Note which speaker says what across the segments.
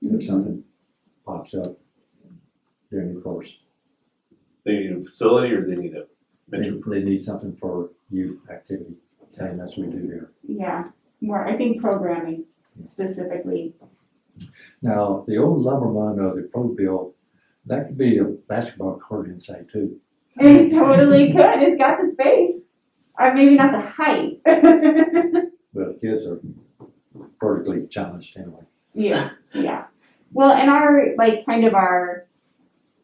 Speaker 1: if something pops up during the course.
Speaker 2: They need a facility or they need a
Speaker 1: They,
Speaker 2: venue?
Speaker 1: they need something for youth activity, same as we do here.
Speaker 3: Yeah, more, I think programming specifically,
Speaker 1: Now, the old lumberman or the pro bill, that could be a basketball court inside too.
Speaker 3: it totally could, it's got the space, or maybe not the height.
Speaker 1: But the kids are vertically challenged anyway.
Speaker 3: Yeah, yeah. Well, and our like kind of our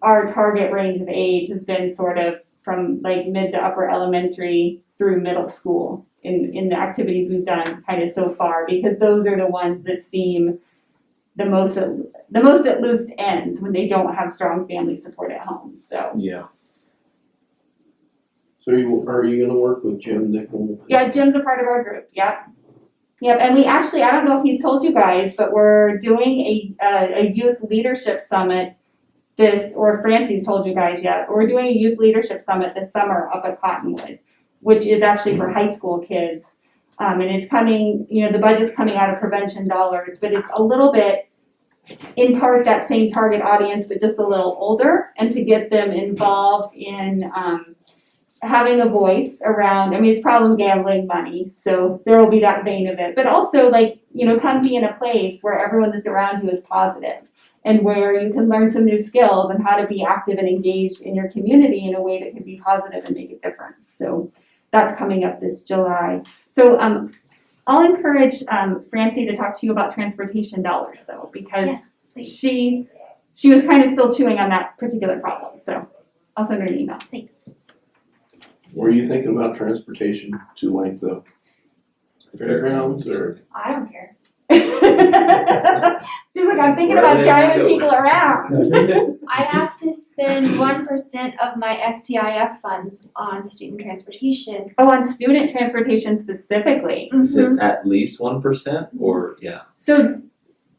Speaker 3: our target range of age has been sort of from like mid to upper elementary through middle school in in the activities we've done kind of so far because those are the ones that seem the most at, the most at loose ends when they don't have strong family support at home. So
Speaker 4: Yeah.
Speaker 5: So you, are you gonna work with Jim Nickel?
Speaker 3: yeah, Jim's a part of our group. Yep. Yep, and we actually, I don't know if he's told you guys, but we're doing a, a, a youth leadership summit this, or Francie's told you guys yet, but we're doing a youth leadership summit this summer up at Cottonwood, which is actually for high school kids. Um, and it's coming, you know, the budget's coming out of prevention dollars, but it's a little bit, in part, that same target audience, but just a little older, and to get them involved in, um, having a voice around i mean it's problem gambling money so there will be that vein of it but also like you know come be in a place where everyone that's around you is positive and where you can learn some new skills and how to be active and engaged in your community in a way that can be positive and make a difference so that's coming up this july so um, i'll encourage um, francie to talk to you about transportation dollars though because
Speaker 6: Yes, please,
Speaker 3: she she was kind of still chewing on that particular problem so i'll send her an email
Speaker 6: thanks.
Speaker 5: Were you thinking about transportation to like the fairgrounds or?
Speaker 6: I don't care.
Speaker 3: She's like, I'm thinking about
Speaker 4: Wherever they
Speaker 3: driving
Speaker 4: go.
Speaker 3: people around.
Speaker 6: I have to spend one percent of my STIF funds on student transportation. Mm-hmm.
Speaker 3: Oh, on student transportation specifically.
Speaker 4: Is it at least one percent or yeah?
Speaker 3: So,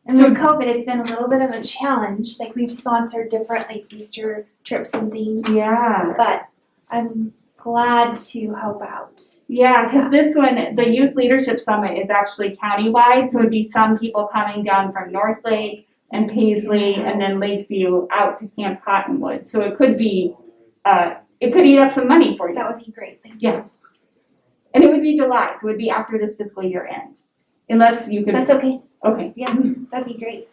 Speaker 6: And with COVID, it's been a little bit of a challenge. Like we've sponsored different like booster trips and things,
Speaker 3: yeah,
Speaker 6: but I'm glad to help out.
Speaker 3: yeah, because this one, the Youth Leadership Summit is actually countywide, so it'd be some people coming down from North Lake and Paisley and then Lakeview out to Camp Cottonwood. So it could be, uh, it could eat up some money for you.
Speaker 6: That would be great. Thank you.
Speaker 3: And it would be July, so it would be after this fiscal year end. Unless you could,
Speaker 6: That's okay.
Speaker 3: okay.
Speaker 6: Yeah, that'd be great.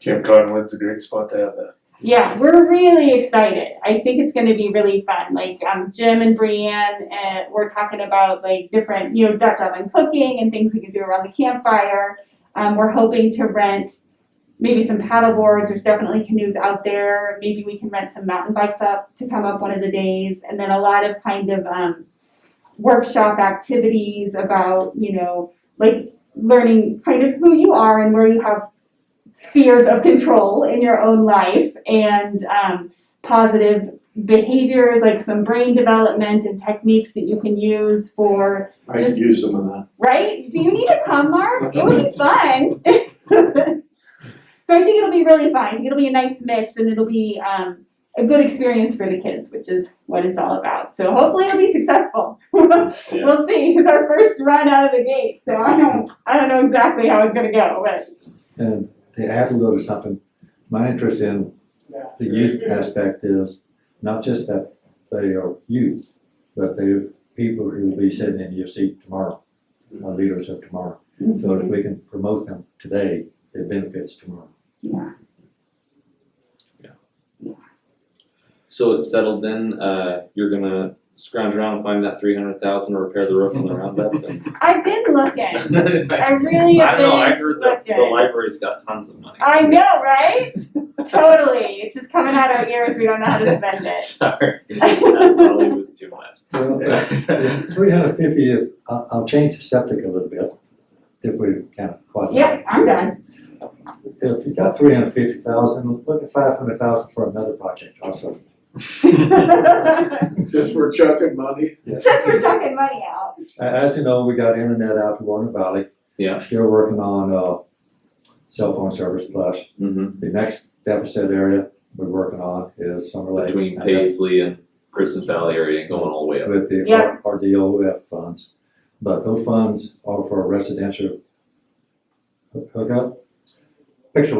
Speaker 2: Camp Cottonwood's a great spot to have that.
Speaker 3: Yeah, we're really excited. I think it's going to be really fun. Like um, Jim and Brianne, and we're talking about like different, you know, Dutch oven cooking and things we can do around the campfire. Um, we're hoping to rent maybe some paddle boards. There's definitely canoes out there. Maybe we can rent some mountain bikes up to come up one of the days, and then a lot of kind of um, workshop activities about you know like learning kind of who you are and where you have spheres of control in your own life and um, positive behaviors like some brain development and techniques that you can use for
Speaker 5: I could use some of that.
Speaker 3: right do you need to come mark it would be fun so i think it'll be really fun I think it'll be a nice mix and it'll be um, a good experience for the kids which is what it's all about so hopefully it'll be successful
Speaker 2: Yeah.
Speaker 3: we'll see it's our first run out of the gate so i don't i don't know exactly how it's going to go but
Speaker 1: And to add a little something, my interest in the youth aspect is not just that they are youth, but they're people who will be sitting in your seat tomorrow, our leaders of tomorrow. So if we can promote them today, it benefits tomorrow.
Speaker 3: yeah
Speaker 4: So it's settled then. Uh, you're gonna scrounge around and find that three hundred thousand to repair the roof on the roundabout. Then.
Speaker 3: I've been looking. I
Speaker 4: I
Speaker 3: really have
Speaker 4: don't know. I
Speaker 3: been.
Speaker 4: heard that the
Speaker 3: Okay.
Speaker 4: library's got tons of money.
Speaker 3: I know, right? totally. It's just coming out our ears. We don't know how to spend it.
Speaker 4: Sorry, that probably was too much.
Speaker 1: Well, three hundred fifty is, I'll, I'll change the septic a little bit, if we can quasi.
Speaker 3: Yep, I'm done.
Speaker 1: If you got three hundred fifty thousand, look at five hundred thousand for another project also.
Speaker 5: Since we're chucking money.
Speaker 3: Since we're chucking money out.
Speaker 1: A- As you know, we got internet out to Warner Valley.
Speaker 4: Yeah.
Speaker 1: Still working on, uh, cell phone service plus.
Speaker 4: Mm-hmm.
Speaker 1: The next deficit area we're working on is Summer Lake.
Speaker 4: Between
Speaker 1: and that's
Speaker 4: Paisley and Kristen Valley area, and going all the way up.
Speaker 1: With the
Speaker 3: Yeah.
Speaker 1: R- RDOF funds, but those funds are for residential hook- hookup. Picture